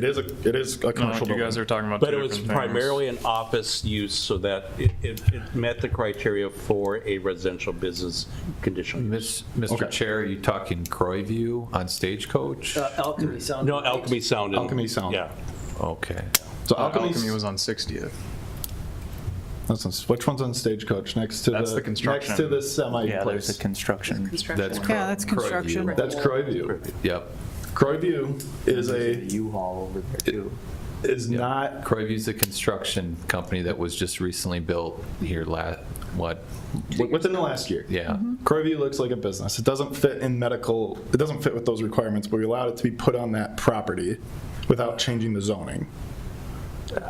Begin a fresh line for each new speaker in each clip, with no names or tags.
It is a, it is a
No,
commercial
you guys
building.
are talking about.
But
two
it was
different things.
primarily an office use, so that it, it it met the criteria for a residential business conditional use.
Miss- Mr. Chair, are you talking Croy View on Stagecoach?
Uh, Alchemy Sound.
No, Alchemy Sound. and-
Alchemy Sound.
Yeah.
Okay.
So
Uh,
Alchemy,
Alchemy was on 60th.
that's on- which one's on Stagecoach? Next to the.
That's the construction.
Next to the semi
Yeah, there's a
place.
construction.
That's
Construction.
Croy.
Yeah, that's
Croy View.
construction.
That's Croyview.
Yep.
Croyview is a,
U-Haul over there too.
is not,
Croy View's a construction company that was just recently built here last, what,
wi- within the last year.
yeah.
Mm-hmm.
Croyview looks like a business. It doesn't fit in medical, it doesn't fit with those requirements, but we allowed it to be put on that property without changing the zoning.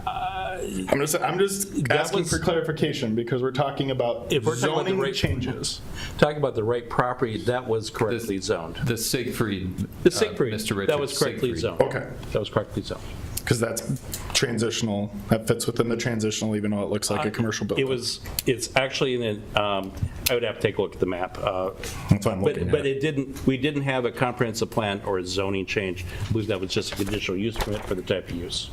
I'm just, I'm just
That
asking
was-
for clarification because we're talking about
If we're talking about the
zoning
rate-
changes.
Talking about the right property, that was correctly zoned.
uh,
The Siegfried.
The
uh,
Siegfried.
Mr. Richard
That was correctly
Siegfried.
zoned.
Okay.
That was correctly zoned.
Because that's transitional, that fits within the transitional, even though it looks like a commercial building.
Uh, It was, it's actually in, an, um, I would have to take a look at the map. uh,
That's what I'm
But,
looking at.
but it didn't, we didn't have a comprehensive plan or a zoning change. I believe that was just a conditional use permit for the type of use.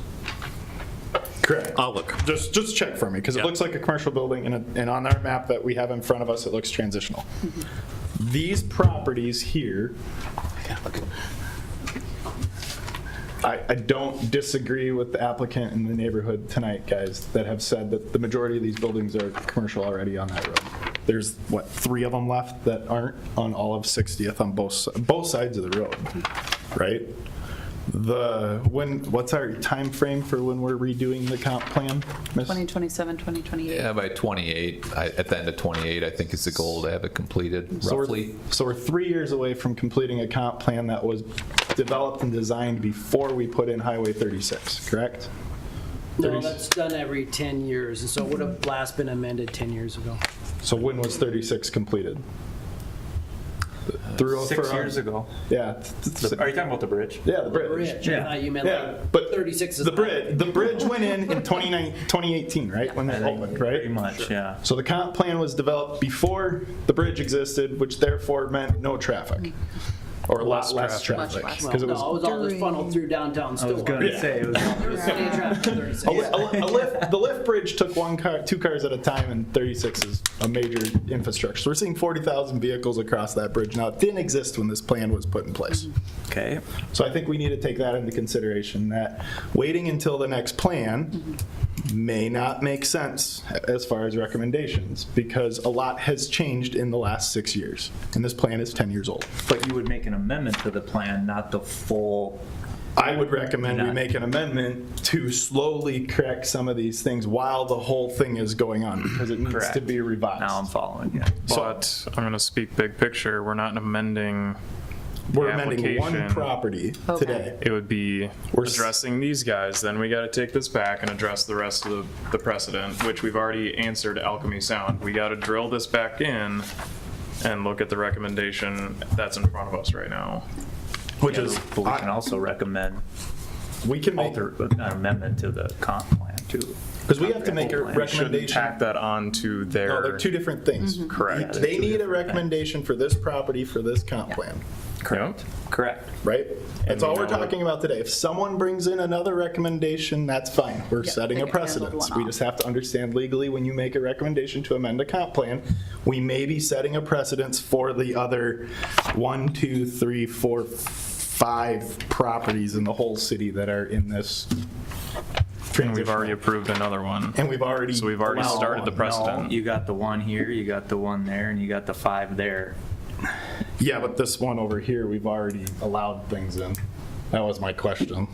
Correct.
I'll look.
Just, just check for me, because it
Yeah.
looks like a commercial building, and, it- and on our map that we have in front of us, it looks transitional.
Mm-hmm.
These properties here, I, I don't disagree with the applicant in the neighborhood tonight, guys, that have said that the majority of these buildings are commercial already on that road. There's, what, three of them left that aren't on all of 60th on both, si- both sides of the road, right? The, when, what's our time frame for when we're redoing the comp plan? miss?
2027, 2028.
Yeah, by 28, I- at the end of 28, I think is the goal to have it completed
So we're-
roughly.
So we're three years away from completing a comp plan that was developed and designed before we put in Highway 36, correct?
No, that's done every 10 years, and so it would have last been amended 10 years ago.
So when was 36 completed? Through-
Six
for-
years ago.
Yeah. th- th-
Oh, Are you talking about the bridge?
Yeah, the bridge.
Bridge, I thought you meant
Yeah,
like
but
36 is.
the
not-
bridge, the bridge went in in 29 2018, right? When that opened, right?
Pretty much, yeah.
So the comp plan was developed before the bridge existed, which therefore meant no traffic. Or a lot less traffic.
Much less.
Well,
'cause
no,
it
it was
was-
all just funneled through downtown
I was
Stillwater.
gonna
Yeah.
say, it was,
There was plenty of traffic in 36.
A li- a li- a lift- The lift bridge took one car, two cars at a time, and 36 is a major infrastructure. So we're seeing 40,000 vehicles across that bridge now. It didn't exist when this plan was put in place.
okay.
So I think we need to take that into consideration, that waiting until the next plan may not make sense as far as recommendations, because a lot has changed in the last six years, and this plan is 10 years old.
But you would make an amendment to the plan, not the full,
I would recommend we
Not-
make an amendment to slowly correct some of these things while the whole thing is going on, because it needs to
Correct.
be
now I'm
revised.
following you.
But I'm going to speak big picture. We're not amending.
We're amending one
application.
property
Okay.
today.
It would be
We're s-
addressing these guys. Then we got to take this back and address the rest of the, the precedent, which we've already answered Alchemy Sound. We got to drill this back in and look at the recommendation that's in front of us right now.
Which is,
But we can also recommend
we can make,
alter, an amendment to the comp plan too.
because we have to make a
We shouldn't
Shouldn't
recommendation.
tack that on to their.
No, they're two different things.
Correct.
Yeah, they're
They
two
need a
different things.
recommendation for this property, for this comp plan,
Correct.
Correct.
right? That's all we're
know-
talking about today. If someone brings in another recommendation, that's fine. We're
Yeah,
setting
they
a
can handle the
precedence.
one
We
off.
just have to understand legally, when you make a recommendation to amend a comp plan, we may be setting a precedence for the other one, two, three, four, five properties in the whole city that are in this
And we've
transition.
already approved another one.
And we've already.
So we've already
allowed
started the
one.
precedent.
No, you got the one here, you got the one there, and you got the five there.
Yeah, but this one over here, we've already allowed things in. That was my question.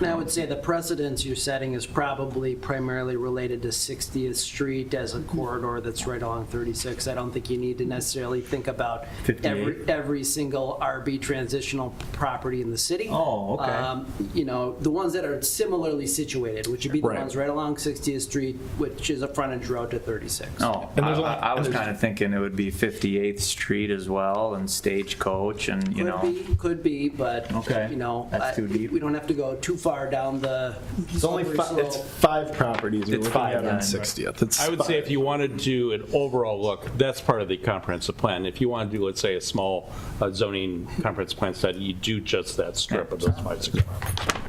And I would say the precedence you're setting is probably primarily related to 60th Street as a
Mm-hmm.
corridor that's right along 36. I don't think you need to necessarily think about every,
58.
every single RB transitional property in the city.
Oh, okay.
Um, You know, the ones that are similarly situated, which would be the
Right.
ones right along 60th Street, which is a frontage road to 36.
Oh, I,
And there's
I
only-
I
and
was
there's-
kind of thinking it would be 58th Street as well and Stagecoach and, you
Could
know.
be, could be, but,
Okay.
you know,
That's
I-
too deep.
we don't have to go too far down the
It's only,
slippery
fi- it's
slope.
five properties we're
It's
looking
five
at on
then.
60th. It's
I would say
five.
if you want to do an overall look, that's part of the comprehensive plan. If you want to do, let's say, a small uh, zoning comprehensive plan study, you do just that strip of those five, six blocks.